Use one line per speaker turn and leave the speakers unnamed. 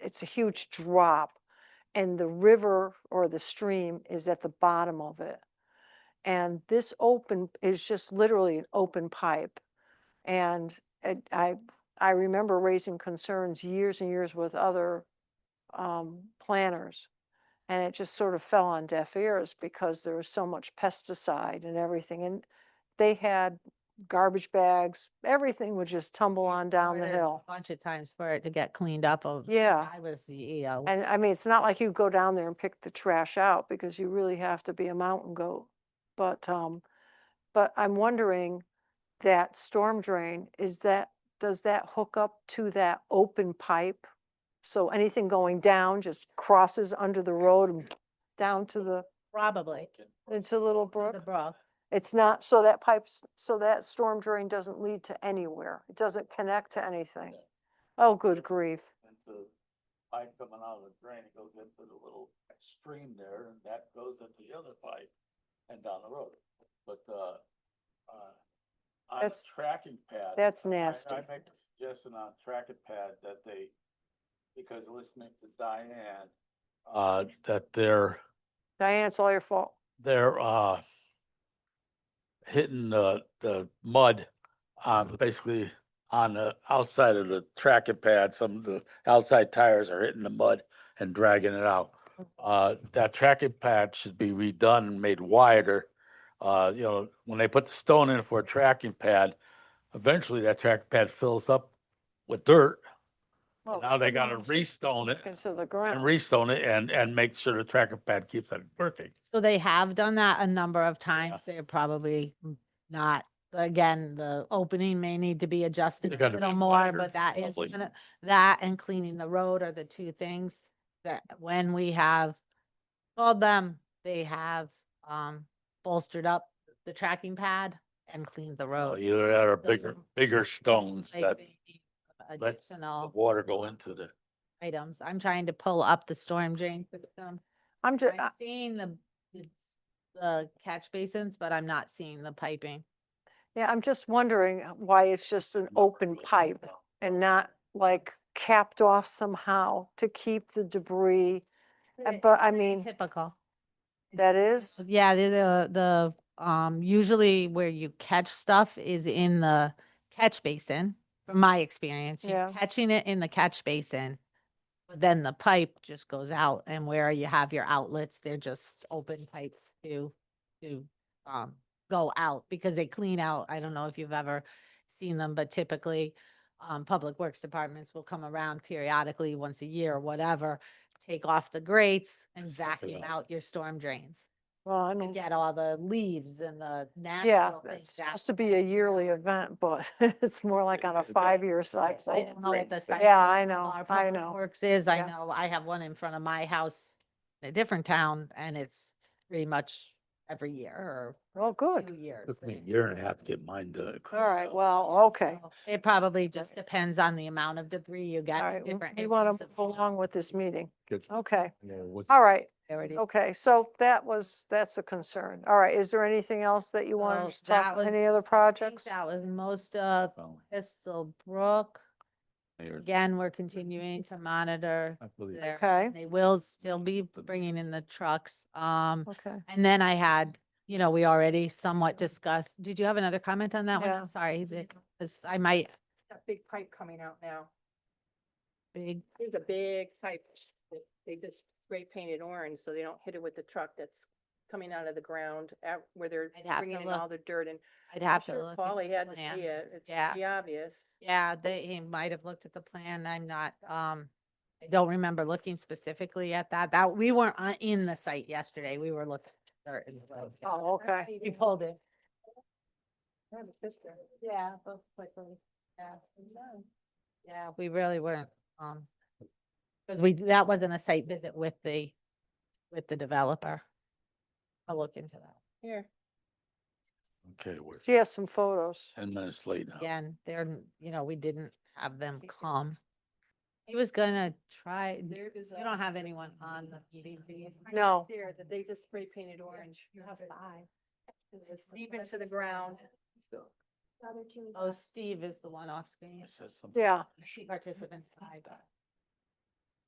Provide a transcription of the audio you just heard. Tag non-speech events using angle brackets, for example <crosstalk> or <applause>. it's a huge drop and the river or the stream is at the bottom of it. And this open is just literally an open pipe. And it, I, I remember raising concerns years and years with other um, planners. And it just sort of fell on deaf ears because there was so much pesticide and everything. And they had garbage bags, everything would just tumble on down the
ordered a
hill.
Bunch of times for it to get cleaned up of. since
Yeah.
I was the E EO.
And I mean, it's not like you go down there and pick the trash out because you really have to be a mountain goat. But, um, but I'm wondering that storm drain, is that, does that hook up to that open pipe? So anything going down just crosses under the road and down to the,
Probably.
into Little
to The
Brook?
brook.
It's not, so that pipes, so that storm drain doesn't lead to anywhere. It doesn't connect to anything.
No.
Oh, good grief.
Into pipe coming out of the drain, it goes into the little stream there and that goes into the other pipe and down the road. But, uh, uh, on the
That's-
tracking pad.
That's
I-
nasty.
I make the suggestion on tracking pad that they, because listening to Diane, uh, that they're,
Diane, it's all your fault.
they're, uh, hitting the, the mud on basically on the outside of the tracking pad, some of the outside tires are hitting the mud and dragging it out. Uh, that tracking pad should be redone and made wider. Uh, you know, when they put the stone in for a tracking pad, eventually that tracking pad fills up with dirt.
Well,
Now they gotta
it's-
restone it
Into the
and
ground.
restone it and, and make sure the tracking pad keeps it working.
So they have done that a number of times. They're probably not, again, the opening may need to be adjusted a
gotta
little
be
more,
wider,
but that is
probably.
gonna, that and cleaning the road are the two things that when we have called them, they have, um, bolstered up the tracking pad and cleaned the
Uh,
road.
Either that or
So
bigger,
you-
bigger stones
Like
that
they need
let the
Additional
water go into the,
items. I'm trying to pull up the storm drain system.
I'm uh, just,
I'm seeing the, the- the catch basins, but I'm not seeing the piping.
yeah, I'm just wondering why it's just an open pipe and not like capped off somehow to keep the debris. Uh,
It-
But I
it's
mean,
Typical.
that is,
Yeah, the, the, the, um, usually where you catch stuff is in the catch basin, from my experience. You're
Yeah.
catching it in the catch basin. But then the pipe just goes out and where you have your outlets, they're just open pipes to, to, um, go out because they clean out. I don't know if you've ever seen them, but typically, um, public works departments will come around periodically, once a year or whatever, take off the grates and
Suck it
vacuum
up.
out your storm drains
well, I
and
don't,
get all the leaves and the
yeah,
natural
it's
things. out.
supposed to be a yearly event, but <laughs> it's more like on a
Yeah.
five-year
I
cycle.
I don't know what the size
Yeah,
of
I know,
our
I
public
know.
Works is, I
Yeah.
know, I have one in front of my house in a different town and it's pretty much every year
Oh,
or
good.
two years.
took me
they-
a year and a half to get mine to.
All right, well, okay.
So It probably just depends on the amount of debris you
All
got.
right,
in
we-
different
we want
areas
to
of
move
town.
along with this meeting.
Good.
Okay,
Yeah, what's-
oh, all right,
Priority.
okay, so that was, that's a concern. All right, is there anything else that you wanted
So
to talk,
that
about?
was-
any other
I think
projects?
That was most of
well,
Pistol Brook.
mayor,
Again, we're continuing to monitor
I believe-
their
Okay,
They will still be bringing in the trucks. Um,
okay.
and then I had, you know, we already somewhat discussed, did you have another comment on that one?
Yeah.
I'm sorry, that, 'cause I might,
that big pipe coming out now.
big,
There's a big pipe that they just spray painted orange, so they don't hit it with the truck that's coming out of the ground at, where they're
I'd have to
bringing in
look.
all the dirt and.
I'd
I'm
have to
sure
look. at
Paulie
the
had to
plan.
see it. It's
Yeah.
pretty obvious.
Yeah, they, he might have looked at the plan. I'm not, um, I don't remember looking specifically at that. That, we weren't on- in the site yesterday. We were looking. at dirt and stuff.
Oh, okay.
We pulled it.
I have a sister.
Yeah, both quickly, yeah. Yeah, we really weren't, um, because we, that wasn't a site visit with the, with the developer. I'll look into that.
Here.
Okay, we're
She has some photos.
ten minutes late now.
Again, they're, n- you know, we didn't have them come. He was gonna try,
There is.
you don't have anyone on the meeting. do you?
No.
There, that they just spray painted orange.
You have five.
It's Deep into the ground.
Oh, Steve is the one off screen.
I said something.
Yeah,
Participants five.